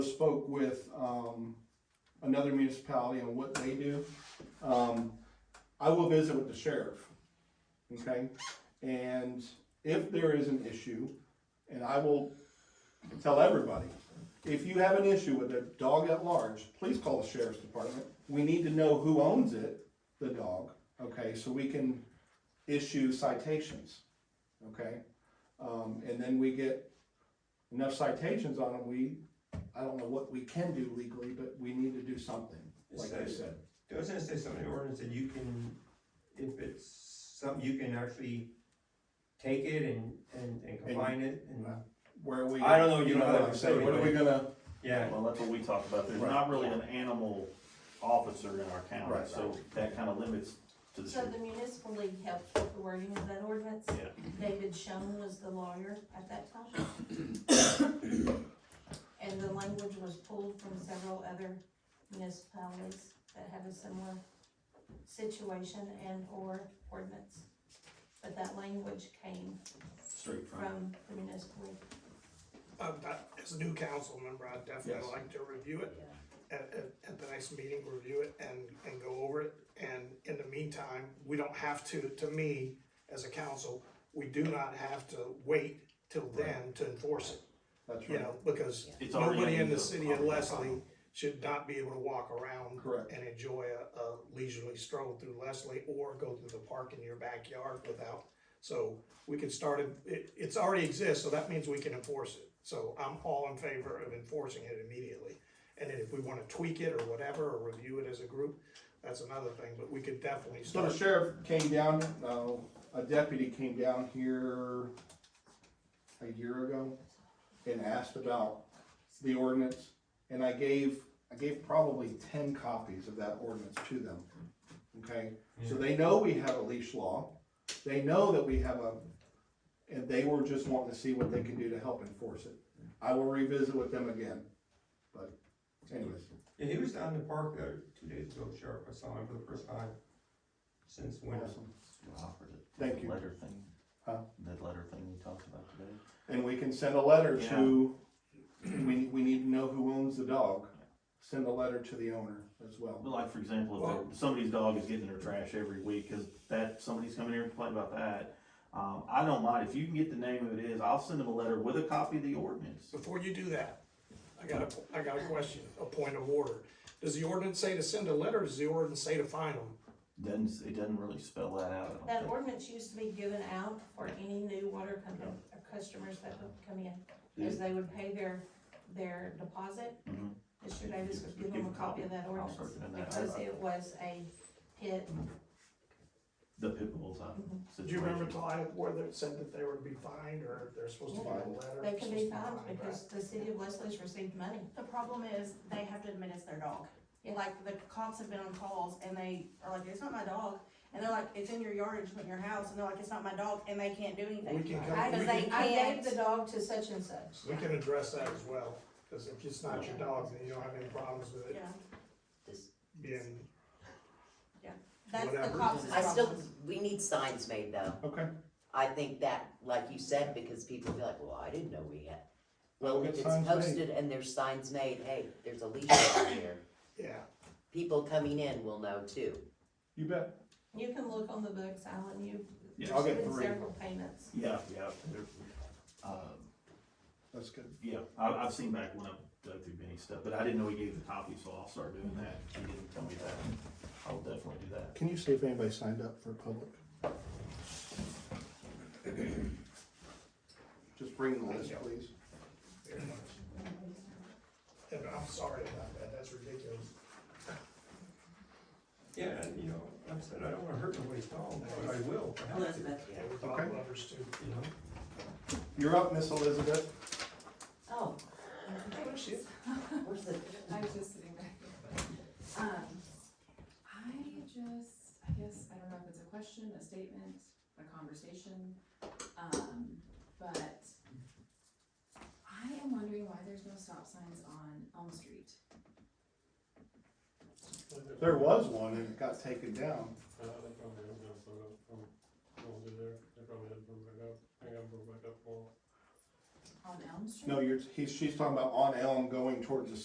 spoke with, um, another municipality on what they do. Um, I will visit with the sheriff, okay? And if there is an issue, and I will tell everybody, if you have an issue with a dog at large, please call the sheriff's department. We need to know who owns it, the dog, okay, so we can issue citations, okay? Um, and then we get enough citations on them, we, I don't know what we can do legally, but we need to do something, like I said. I was gonna say something in the ordinance that you can, if it's something, you can actually take it and, and, and combine it and, Where are we? I don't know, you don't what have I'm to saying, say, What are we but- gonna, yeah. Well, that's what we talked about, there's not really an animal officer in our county, Right. so that kind of limits to the. So the municipal league helped with the wording of that ordinance. Yeah. David Schoen was the lawyer at that time. And the language was pulled from several other municipalities that have a similar situation and or ordinance. But that language came Straight from. from the municipal league. Uh, but as a new council member, I'd definitely Yes. like to review it at, at, at the next meeting, review it and, and go over it. And in the meantime, we don't have to, to me, as a council, we do not have to wait till then to enforce it, that's you right, know, because It's already nobody in under the the city of umbrella. Leslie should not be able to walk around Correct. and enjoy a, a leisurely stroll through Leslie or go through the park in your backyard without. So we can start it, it, it's already exists, so that means we can enforce it. So I'm all in favor of enforcing it immediately. And then if we wanna tweak it or whatever, or review it as a group, that's another thing, but we could definitely so the start. sheriff came down, uh, a deputy came down here a year ago and asked about the ordinance, and I gave, I gave probably ten copies of that ordinance to them, okay? So they know we have a leash law, they know that we have a, and they were just wanting to see what they can do to help enforce it. I will revisit with them again, but anyways, Yeah, he was down in the park the other two days ago, Sheriff, I saw him for the first time since winter. awesome. Thank That you. letter thing, Huh? that letter thing we talked about today. And we can send a letter to, we, we need to know who owns the dog. Send a letter to the owner as well. But like, for example, if Well- there- somebody's dog is getting their trash every week, cause that, somebody's coming here and complaining about that. Um, I don't mind, if you can get the name of it is, I'll send them a letter with a copy of the ordinance. Before you do that, I got a, I got a question, a point of order. Does the ordinance say to send a letter, or does the ordinance say to fine them? Doesn't, it doesn't really spell that out, I That don't think. ordinance used to be given out for any new water company, or customers that would come in, as they would pay their, their deposit. Mhm. Mr. Davis would give them a copy of that I'll ordinance, start doing that. because it was a hit. The pit bull type Mm-hmm. Do you situation. remember Ty, whether it said that they were to be fined or if they're supposed to get a letter? They can be fined right? because the city of Leslie's received money. The problem is they have to administer their dog. Yeah. Like the cops have been on calls and they are like, it's not my dog. And they're like, it's in your yard, it's in your house. And they're like, it's not my dog. And they can't do We anything. can I, come, Because we they can, I gave can't- the dog to such and such. we can address that as well, cause if it's not your dog, then you don't have any problems with Yeah. it being, That's the Whatever. cops' I still, problem. we need signs made though. Okay, I think that, like you said, because people be like, well, I didn't know we had. Well, We'll if get it's signs made. posted and there's signs made, hey, there's a leash out here, yeah. people coming in will know too. you bet. You can look on the books, Alan, you. Yeah, I'll get there's been three. Several payments. Yeah, yeah, they're, um, That's good. Yeah, I, I've seen back when I've dug through Benny's stuff, but I didn't know he gave the copy, so I'll start doing that. He didn't tell me that. I'll definitely do that. Can you see if anybody signed up for public? Just bring the list, please. very much. And I'm sorry about that, that's ridiculous. Yeah, and, you know, like I said, I don't wanna hurt nobody's dog, but I will, if I have to, Elizabeth. Yeah, we're dog lovers too. you know? You're up, Miss Elizabeth. Oh, shit. where's the, I was just sitting back. Um, I just, I guess, I don't know if it's a question, a statement, a conversation, um, but I am wondering why there's no stop signs on Elm Street. There was one and it got taken down. Uh, they probably don't have put up from, from over there, they probably had to put back up, I got put back up more. on Elm Street? No, you're, he's, she's talking about on Elm going towards the